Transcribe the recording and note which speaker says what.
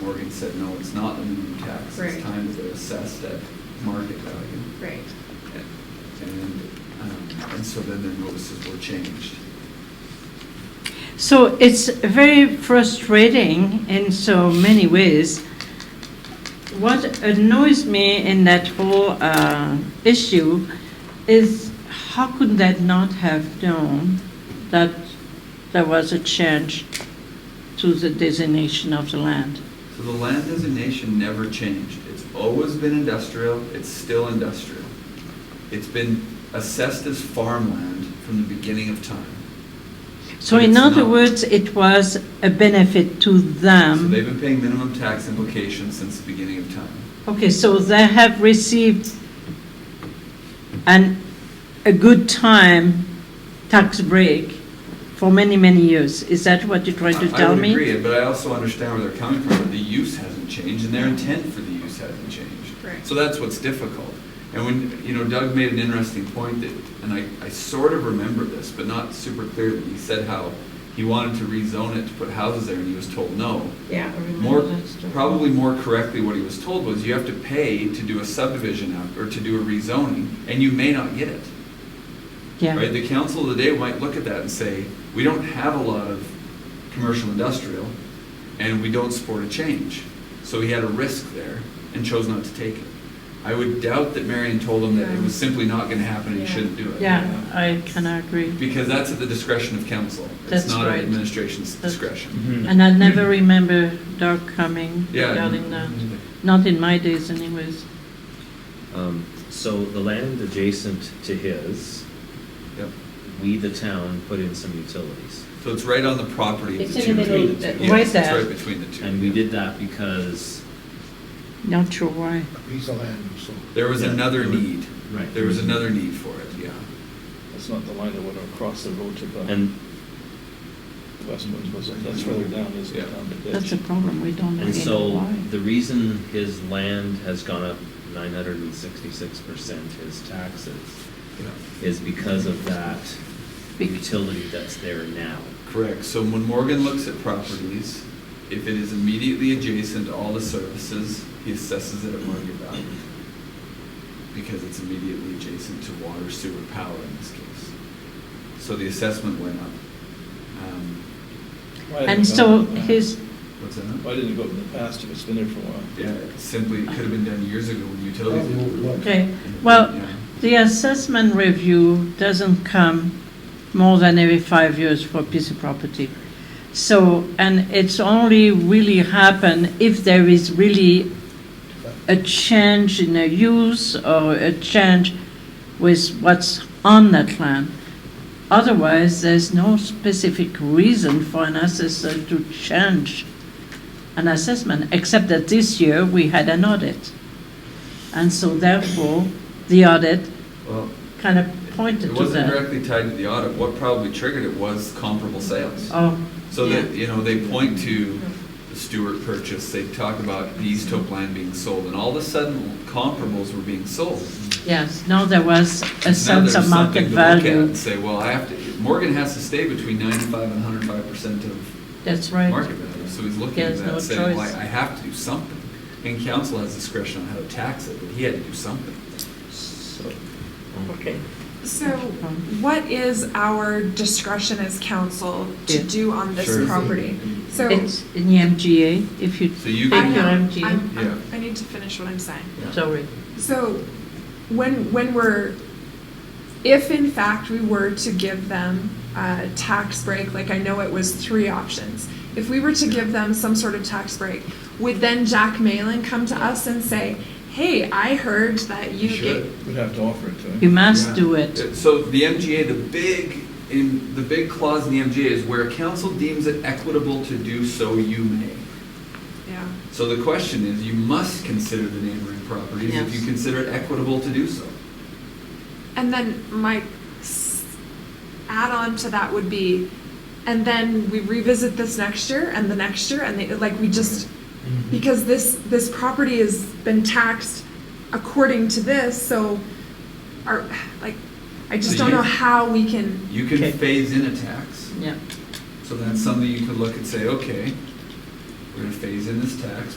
Speaker 1: Morgan said, no, it's not the minimum tax,
Speaker 2: Right.
Speaker 1: it's time that they're assessed at market value.
Speaker 2: Right.
Speaker 1: And, um, and so then their notices were changed.
Speaker 3: So it's very frustrating in so many ways. What annoys me in that whole uh, issue is how could that not have known that there was a change to the designation of the land?
Speaker 1: So the land designation never changed. It's always been industrial, it's still industrial. It's been assessed as farmland from the beginning of time.
Speaker 3: So
Speaker 1: But
Speaker 3: in
Speaker 1: it's
Speaker 3: other
Speaker 1: not.
Speaker 3: words, um, it was a benefit to
Speaker 1: So
Speaker 3: them.
Speaker 1: they've been paying minimum tax implications since the beginning of time.
Speaker 3: Okay, so they have received an, a good time tax break for many, many years. Is that what you're trying to
Speaker 1: I- I
Speaker 3: tell
Speaker 1: would
Speaker 3: me?
Speaker 1: agree, but I also understand where they're coming from, that the use hasn't changed, and their intent for the use hasn't changed.
Speaker 2: Right.
Speaker 1: So that's what's difficult. And when, you know, Doug made an interesting point that, and I, I sort of remember this, but not super clearly. He said how he wanted to rezone it to put houses there, and he was told no.
Speaker 2: Yeah.
Speaker 4: Mm-hmm.
Speaker 1: More, probably more correctly, what he was told was you have to pay to do a subdivision app, or to do a rezoning, and you may not get it. Right,
Speaker 3: Yeah,
Speaker 1: the council of the day might look at that and say, we don't have a lot of commercial industrial, and we don't support a change. So he had a risk there and chose not to take it. I would doubt that Marion told him that it was simply not gonna happen and he
Speaker 2: Yeah.
Speaker 1: shouldn't do it.
Speaker 3: yeah, I can agree.
Speaker 1: Because that's at the discretion of council. It's
Speaker 3: That's
Speaker 1: not at
Speaker 3: right.
Speaker 1: administration's
Speaker 3: That's-
Speaker 1: discretion.
Speaker 5: Mm-hmm.
Speaker 3: And I never remember Doug coming
Speaker 1: Hmm. Yeah. Mm-hmm.
Speaker 3: regarding that, not in my days anyways.
Speaker 5: Um, So the land adjacent to his,
Speaker 1: Yep.
Speaker 5: we, the town, put in some utilities.
Speaker 1: So it's right on the property of
Speaker 2: It's
Speaker 1: the
Speaker 2: in
Speaker 1: two.
Speaker 2: the middle,
Speaker 1: between the two.
Speaker 2: that-
Speaker 1: Yes,
Speaker 3: right
Speaker 1: it's
Speaker 3: there.
Speaker 1: Right between the two.
Speaker 5: And we did that because,
Speaker 3: Not sure why.
Speaker 6: He's a land, so.
Speaker 1: There was
Speaker 5: Yeah.
Speaker 1: another need.
Speaker 5: Right.
Speaker 1: There was another need for it, yeah.
Speaker 7: That's not the line that went across the road to the
Speaker 5: and,
Speaker 7: westwards, was it? That's further down, isn't
Speaker 1: Yeah.
Speaker 7: it, down the ditch?
Speaker 3: That's the problem, we don't
Speaker 5: and
Speaker 3: really know
Speaker 5: so
Speaker 3: why.
Speaker 5: the reason his land has gone up nine hundred and sixty-six percent, his taxes,
Speaker 1: Yeah.
Speaker 5: is because of that
Speaker 3: Bec-
Speaker 5: utility that's there now.
Speaker 1: Correct, so when Morgan looks at properties, if it is immediately adjacent to all the services, he assesses it at market value. Because it's immediately adjacent to water, sewer, power in this case. So the assessment went up. Um,
Speaker 7: Why didn't
Speaker 3: And
Speaker 7: it go
Speaker 3: so
Speaker 7: up in the
Speaker 3: his,
Speaker 7: past?
Speaker 1: What's that?
Speaker 7: Why didn't it go up in the past if it's been there for a while?
Speaker 1: Yeah, it simply, it could have been done years ago when utilities. did it.
Speaker 3: okay, well,
Speaker 1: Yeah.
Speaker 3: The assessment review doesn't come more than every five years for a piece of property. So, and it's only really happen if there is really a change in a use or a change with what's on that land. Otherwise, there's no specific reason for an assessor to change an assessment, except that this year we had an audit. And so therefore, the audit
Speaker 1: Well,
Speaker 3: kind of
Speaker 1: it
Speaker 3: pointed to
Speaker 1: wasn't
Speaker 3: that.
Speaker 1: directly tied to the audit, what probably triggered it was comparable sales.
Speaker 3: Oh,
Speaker 1: So
Speaker 3: Yeah.
Speaker 1: that, you know, they point to the Stewart purchase, they talk about the East Hope land being sold, and all of a sudden comparables were being sold.
Speaker 3: yes, now there was
Speaker 1: Now
Speaker 3: a sense
Speaker 1: there's
Speaker 3: of market
Speaker 1: something to look at
Speaker 3: value.
Speaker 1: And say, well, I have to, Morgan has to stay between ninety-five and hundred and five percent of
Speaker 3: That's
Speaker 1: market
Speaker 3: right.
Speaker 1: value, so he's
Speaker 3: He
Speaker 1: looking at
Speaker 3: has no
Speaker 1: that, saying, well, I
Speaker 3: choice.
Speaker 1: I have to do something. And council has discretion on how to tax it, but he had to do something.
Speaker 7: So,
Speaker 3: Okay.
Speaker 4: So what is our discretion as council
Speaker 3: Yeah.
Speaker 4: to do on
Speaker 1: Sure.
Speaker 4: this property? So
Speaker 3: It's in the MGA, if you
Speaker 1: So you
Speaker 3: take your
Speaker 4: I know,
Speaker 3: MGA.
Speaker 4: I'm-
Speaker 1: Yeah.
Speaker 4: I'm- I need to finish what I'm saying.
Speaker 3: Sorry.
Speaker 4: So when, when we're, if in fact we were to give them a tax break, like I know it was three options, if we were to give them some sort of tax break, would then Jack Malin come to us and say, hey, I heard that you
Speaker 1: should.
Speaker 4: gave,
Speaker 7: we'd have to offer it to
Speaker 3: You
Speaker 7: him.
Speaker 3: must do
Speaker 1: Uh,
Speaker 3: it.
Speaker 1: So the MGA, the big, in, the big clause in the MGA is where council deems it equitable to do so, you may.
Speaker 4: yeah.
Speaker 1: So the question is, you must consider the neighboring properties if you
Speaker 3: Yes.
Speaker 1: consider it equitable to do so.
Speaker 4: And then my add on to that would be, and then we revisit this next year and the next year and they, like we just, because this, this property has been taxed according to this, so our, like, I just
Speaker 1: So
Speaker 4: don't
Speaker 1: you-
Speaker 4: know how we can,
Speaker 1: You can
Speaker 3: Okay.
Speaker 1: phase in a tax,
Speaker 3: Yeah.
Speaker 1: so that's something you could look and say, okay, We're gonna phase in this tax